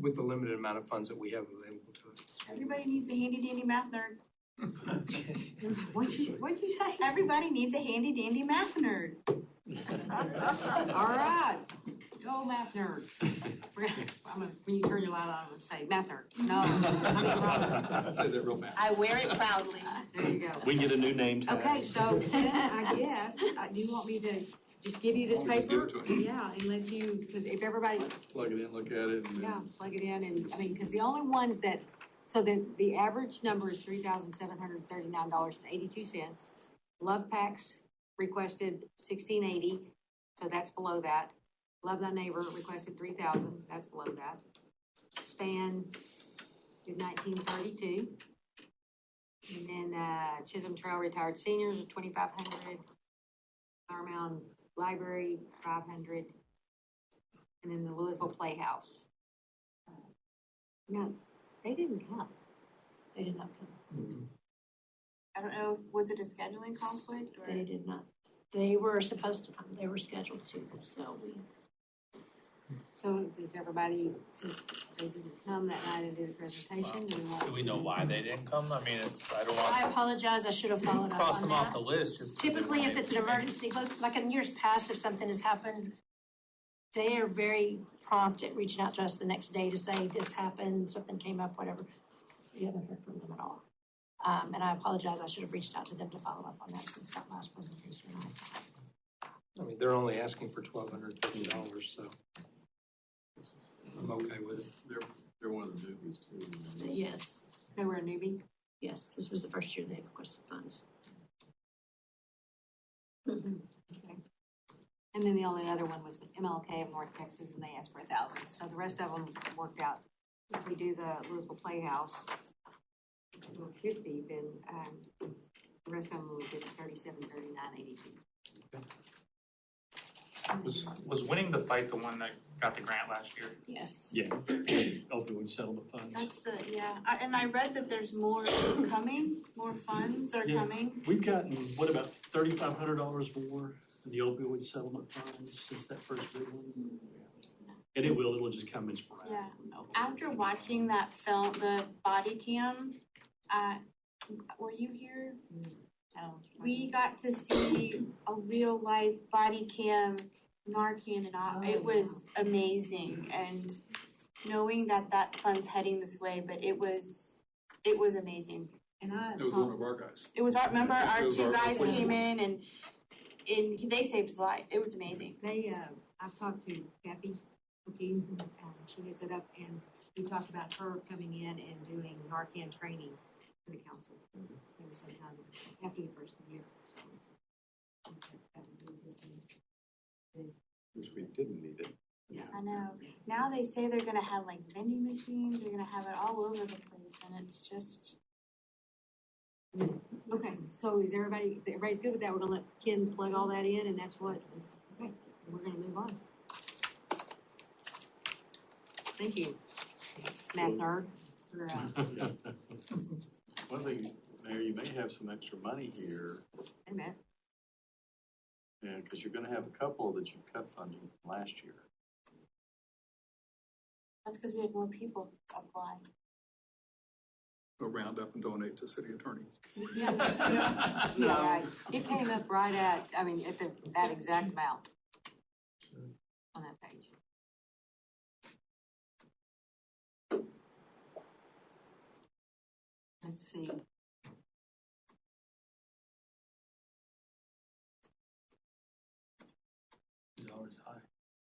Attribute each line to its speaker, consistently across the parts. Speaker 1: with the limited amount of funds that we have available to us.
Speaker 2: Everybody needs a handy dandy math nerd.
Speaker 3: What'd you, what'd you say?
Speaker 2: Everybody needs a handy dandy math nerd.
Speaker 3: All right, go math nerd. We're gonna, I'm gonna, when you turn your light on, I'm gonna say, math nerd, no. I mean, Robert.
Speaker 1: Say that real fast.
Speaker 2: I wear it proudly.
Speaker 3: There you go.
Speaker 4: We can get a new name tag.
Speaker 3: Okay, so then I guess, uh, do you want me to just give you this
Speaker 1: Why don't we just give
Speaker 3: paper?
Speaker 1: it to
Speaker 3: Yeah, and let you, because if everybody,
Speaker 1: Plug it in, look at it, and
Speaker 3: yeah,
Speaker 1: then
Speaker 3: plug it in and, I mean, because the only ones that, so the, the average number is three thousand seven hundred thirty-nine dollars and eighty-two cents. Love Packs requested sixteen eighty, so that's below that. Love Thy Neighbor requested three thousand, that's below that. Span did nineteen thirty-two. And then, uh, Chisholm Trail Retired Seniors are twenty-five hundred. Flower Mound Library, five hundred. And then the Louisville Playhouse. No, they didn't come.
Speaker 5: They did not come,
Speaker 2: I don't know, was it a scheduling conflict or?
Speaker 5: they did not, they were supposed to come, they were scheduled to, so we,
Speaker 3: So does everybody, since they didn't come that night and do the presentation, do we want?
Speaker 6: Do we know why they didn't come? I mean, it's, I don't
Speaker 5: I
Speaker 6: want
Speaker 5: apologize, I should have followed
Speaker 6: to
Speaker 5: up
Speaker 6: cross
Speaker 5: on
Speaker 6: them off the
Speaker 5: that.
Speaker 6: list just. 'cause they
Speaker 5: Typically,
Speaker 6: weren't
Speaker 5: if it's an
Speaker 6: able to make it.
Speaker 5: emergency, like- like in years past, if something has happened, they are very prompt at reaching out to us the next day to say, this happened, something came up, whatever. We haven't heard from them at all. Um, and I apologize, I should have reached out to them to follow up on that since that last presentation.
Speaker 1: I mean, they're only asking for twelve hundred fifty dollars, so. I'm okay with it.
Speaker 7: They're, they're one of the newbies too.
Speaker 5: Yes,
Speaker 3: They were a newbie.
Speaker 5: yes, this was the first year they requested funds.
Speaker 3: And then the only other one was MLK of North Texas and they asked for a thousand. So the rest of them worked out. If we do the Louisville Playhouse, or fifty, then, um, the rest of them will get thirty-seven, thirty-nine, eighty-two.
Speaker 8: Was, was winning the fight the one that got the grant last year?
Speaker 5: Yes.
Speaker 4: Yeah, opioid settlement funds.
Speaker 2: That's the, yeah, I- and I read that there's more coming, more funds are
Speaker 4: Yeah.
Speaker 2: coming.
Speaker 4: We've gotten, what, about thirty-five hundred dollars more in the opioid settlement funds since that first big one? And it will, it'll just come in sporadic.
Speaker 2: Yeah. After watching that film, the body cam, uh, were you here?
Speaker 3: So-
Speaker 2: We got to see a real life body cam Narcan and all.
Speaker 5: Oh,
Speaker 2: It was amazing and knowing that that fund's heading this way, but it was, it was amazing.
Speaker 3: And I.
Speaker 7: It was one of our guys.
Speaker 2: It was our, remember our
Speaker 7: Those
Speaker 2: two
Speaker 7: are-
Speaker 2: guys came in and, and they saved his life. It was amazing.
Speaker 3: They, uh, I've talked to Kathy McKee, um, she heads it up, and we talked about her coming in and doing Narcan training for the council. Maybe sometime after the first year, so. that would be a good thing.
Speaker 7: Which we didn't need it.
Speaker 2: I know. Now they say they're gonna have like vending machines, they're gonna have it all over the place and it's just,
Speaker 3: Okay, so is everybody, everybody's good with that? We're gonna let Ken plug all that in, and that's what, okay, we're gonna move on. Thank you, Matt Nerd, for, uh,
Speaker 7: One thing, Mayor, you may have some extra money here,
Speaker 3: hey, Matt.
Speaker 7: and, because you're gonna have a couple that you've cut funding from last year.
Speaker 2: that's because we had more people apply.
Speaker 9: go round up and donate to city attorney.
Speaker 3: Yeah, right. it came up right at, I mean, at the, that exact amount on that page. Let's see.
Speaker 4: Dollars high.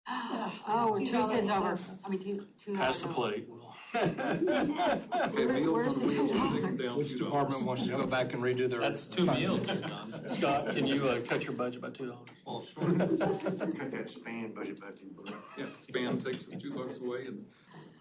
Speaker 3: Oh, we're two cents over, I mean, two, two. dollars
Speaker 4: Pass the
Speaker 3: over.
Speaker 4: plate, Will.
Speaker 9: Okay,
Speaker 3: Where-
Speaker 9: Meals
Speaker 3: where's
Speaker 9: on
Speaker 3: the
Speaker 9: Wheels,
Speaker 3: two
Speaker 9: take them
Speaker 3: dollars?
Speaker 9: down
Speaker 1: Which
Speaker 9: two
Speaker 1: department
Speaker 9: dollars.
Speaker 1: wants to go back and redo their?
Speaker 6: That's two meals we've done.
Speaker 4: Scott, can you, uh, cut your budget by two dollars?
Speaker 7: Well, sure.
Speaker 10: Cut that span budget back in blue.
Speaker 9: Yeah, Span takes the two bucks away and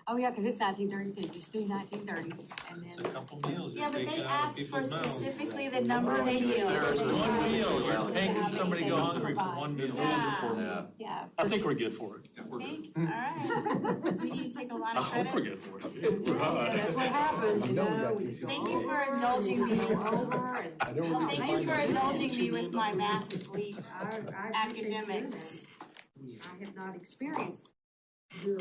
Speaker 3: Oh, yeah, because it's nineteen thirty-two, just do nineteen thirty, and
Speaker 6: It's a
Speaker 3: then,
Speaker 6: couple meals.
Speaker 2: Yeah, but
Speaker 6: You're
Speaker 2: they
Speaker 6: taking out of
Speaker 2: asked for
Speaker 6: people's mouths.
Speaker 2: specifically the number of meals.
Speaker 6: One meal,
Speaker 7: Yeah.
Speaker 6: you're making somebody go hungry for one meal.
Speaker 2: Yeah.
Speaker 7: Yeah.
Speaker 5: Yeah,
Speaker 4: I think we're good for it.
Speaker 9: yeah, we're good.
Speaker 2: Think, all right. We need to take a lot
Speaker 4: I
Speaker 2: of
Speaker 4: hope we're
Speaker 2: credit.
Speaker 4: good for it.
Speaker 3: Yeah, that's what happens, you know? we just go
Speaker 2: Thank you for
Speaker 3: over and
Speaker 2: indulging me.
Speaker 3: Over and.
Speaker 2: Well, thank you for indulging me with my math uh, leap
Speaker 3: I- I appreciate you doing
Speaker 2: academics.
Speaker 3: that. I have not experienced your